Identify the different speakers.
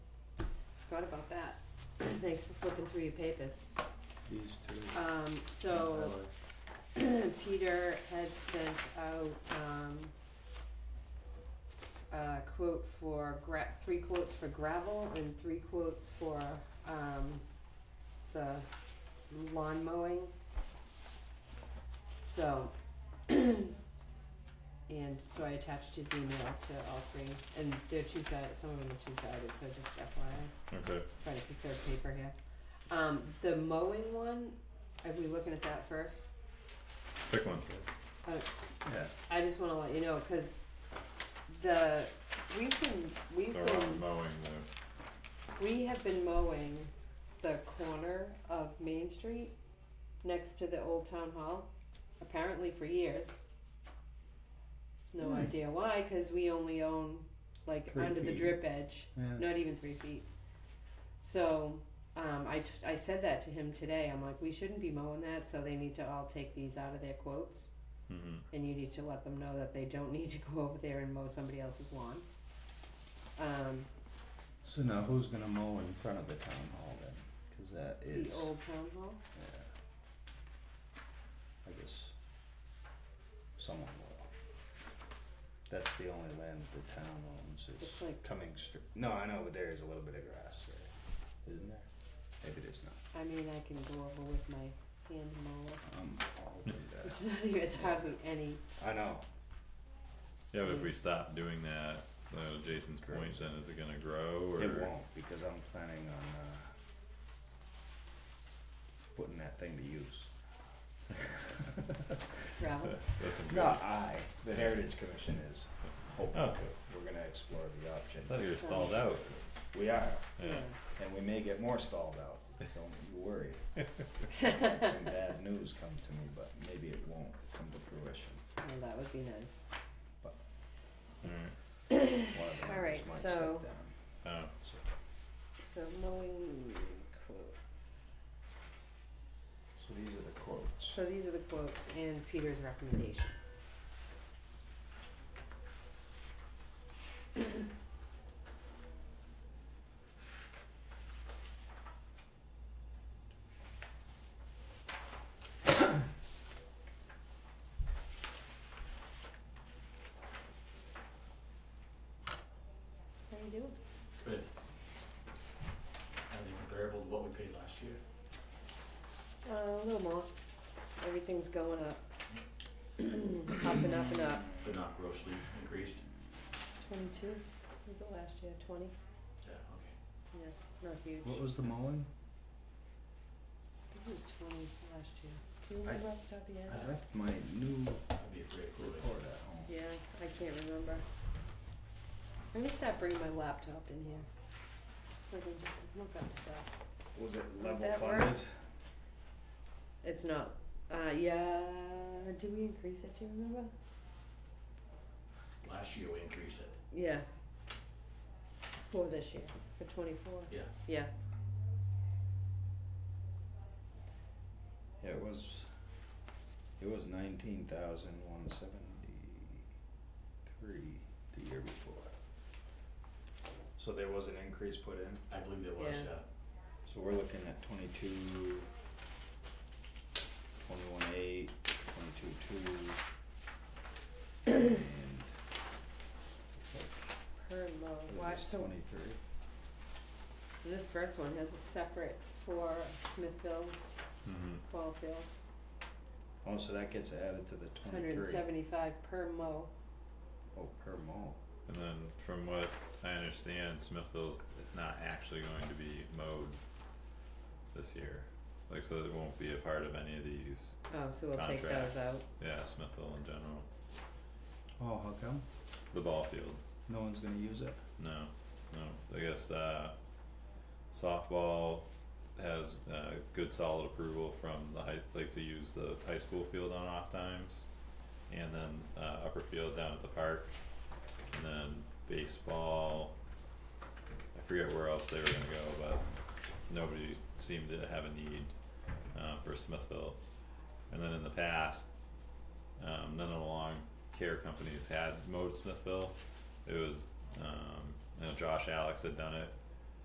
Speaker 1: forgot about that. Thanks for flipping through your papers.
Speaker 2: These two.
Speaker 1: Um, so Peter had sent out, um, a quote for gra- three quotes for gravel and three quotes for, um, the lawn mowing. So, and so I attached his email to all three, and they're two-sided, some of them are two-sided, so just FYI
Speaker 3: Okay.
Speaker 1: try to conserve paper here. Um, the mowing one, are we looking at that first?
Speaker 3: Pick one.
Speaker 2: Yeah,
Speaker 1: I just wanna let you know, cause the, we've been, we've
Speaker 3: So we're
Speaker 1: been,
Speaker 3: on mowing the
Speaker 1: we have been mowing the corner of Main Street next to the old town hall, apparently for years. No
Speaker 2: Hmm.
Speaker 1: idea why, cause we only own like
Speaker 2: Three
Speaker 1: under the
Speaker 2: feet.
Speaker 1: drip edge.
Speaker 2: yeah.
Speaker 1: not even three feet. So um, I, t- I said that to him today. I'm like, we shouldn't be mowing that, so they need to all take these out of their quotes,
Speaker 3: mm-hmm.
Speaker 1: and you need to let them know that they don't need to go over there and mow somebody else's lawn. Um,
Speaker 2: So now who's gonna mow in front of the town hall then? Cause that is,
Speaker 1: the old town hall.
Speaker 2: yeah. I guess someone will. That's the only land the town owns is
Speaker 1: It's like-
Speaker 2: coming straight, no, I know, but there is a little bit of grass there, isn't there? Maybe there's not,
Speaker 1: I mean, I can go over with my hand mower.
Speaker 2: I'm all over Um, that,
Speaker 1: It's not even. It's hardly any.
Speaker 2: I know,
Speaker 3: Yeah, but if
Speaker 1: Mm-hmm.
Speaker 3: we stop doing that, uh, to Jason's point,
Speaker 2: Grows.
Speaker 3: then is it gonna grow or?
Speaker 2: it won't, because I'm planning on, uh, putting that thing to use.
Speaker 1: gravel.
Speaker 3: That's some good.
Speaker 2: Not I, the Heritage Commission is hoping
Speaker 3: Oh.
Speaker 2: to, we're gonna explore the option.
Speaker 3: Thought you were stalled out.
Speaker 2: We are,
Speaker 3: Yeah.
Speaker 2: and we may get more stalled out, don't you worry. Some bad news come to me, but maybe it won't come to fruition,
Speaker 1: Well, that would be nice.
Speaker 3: Alright.
Speaker 2: one of the
Speaker 1: All
Speaker 2: members
Speaker 1: right,
Speaker 2: might
Speaker 1: so-
Speaker 2: step down,
Speaker 3: Oh,
Speaker 2: so.
Speaker 1: So mowing quotes.
Speaker 2: So these are the quotes,
Speaker 1: So these are the quotes and Peter's recommendation. How you doing?
Speaker 4: Good. Not even comparable to what we paid last year.
Speaker 1: Uh, a little more. Everything's going up. Up and up and up.
Speaker 4: They're not grossly increased.
Speaker 1: Twenty-two, was it last year, twenty?
Speaker 4: Yeah, okay.
Speaker 1: Yeah, not huge.
Speaker 2: what was the mowing?
Speaker 1: I think it was twenty last year. Do you
Speaker 2: I-
Speaker 1: remember off the top of your
Speaker 2: I
Speaker 1: head?
Speaker 2: left my new
Speaker 4: I'd be afraid of it.
Speaker 2: report at home.
Speaker 1: Yeah, I can't remember. I'm gonna stop bringing my laptop in here, so I can just look up stuff.
Speaker 2: Was it
Speaker 1: Would
Speaker 2: level
Speaker 1: that
Speaker 2: funded?
Speaker 1: work? It's not, uh, yeah, did we increase it, do you remember?
Speaker 4: Last year we increased it.
Speaker 1: Yeah. For this year, for twenty-four.
Speaker 4: Yeah.
Speaker 1: Yeah,
Speaker 2: Yeah, it was, it was nineteen thousand one seventy-three the year before. So there was an increase put in,
Speaker 4: I believe there was, uh,
Speaker 1: Yeah.
Speaker 4: yeah.
Speaker 2: so we're looking at twenty-two, twenty-one eight, twenty-two two. And looks
Speaker 1: per low,
Speaker 2: like it
Speaker 1: watch,
Speaker 2: was
Speaker 1: so
Speaker 2: twenty-three,
Speaker 1: this first one has a separate for Smithville,
Speaker 3: mhm.
Speaker 1: Ballfield.
Speaker 2: oh, so that gets added to the
Speaker 1: Hundred and
Speaker 2: twenty-three,
Speaker 1: seventy-five per mo.
Speaker 2: oh, per mole,
Speaker 3: And then from what I understand, Smithville's not actually going to be mowed this year. Like, so it won't be a part of any of these
Speaker 1: Oh, so we'll take
Speaker 3: contracts.
Speaker 1: those out.
Speaker 3: Yeah, Smithville in general.
Speaker 2: oh, how come,
Speaker 3: The ball field,
Speaker 2: no one's gonna use it?
Speaker 3: no, no, I guess, uh, softball has, uh, good solid approval from the high, like to use the high school field on off times. And then, uh, upper field down at the park, and then baseball, I forget where else they were gonna go, but nobody seemed to have a need, uh, for Smithville. And then in the past, um, none of the long care companies had mowed Smithville. It was, um, you know, Josh Alex had done it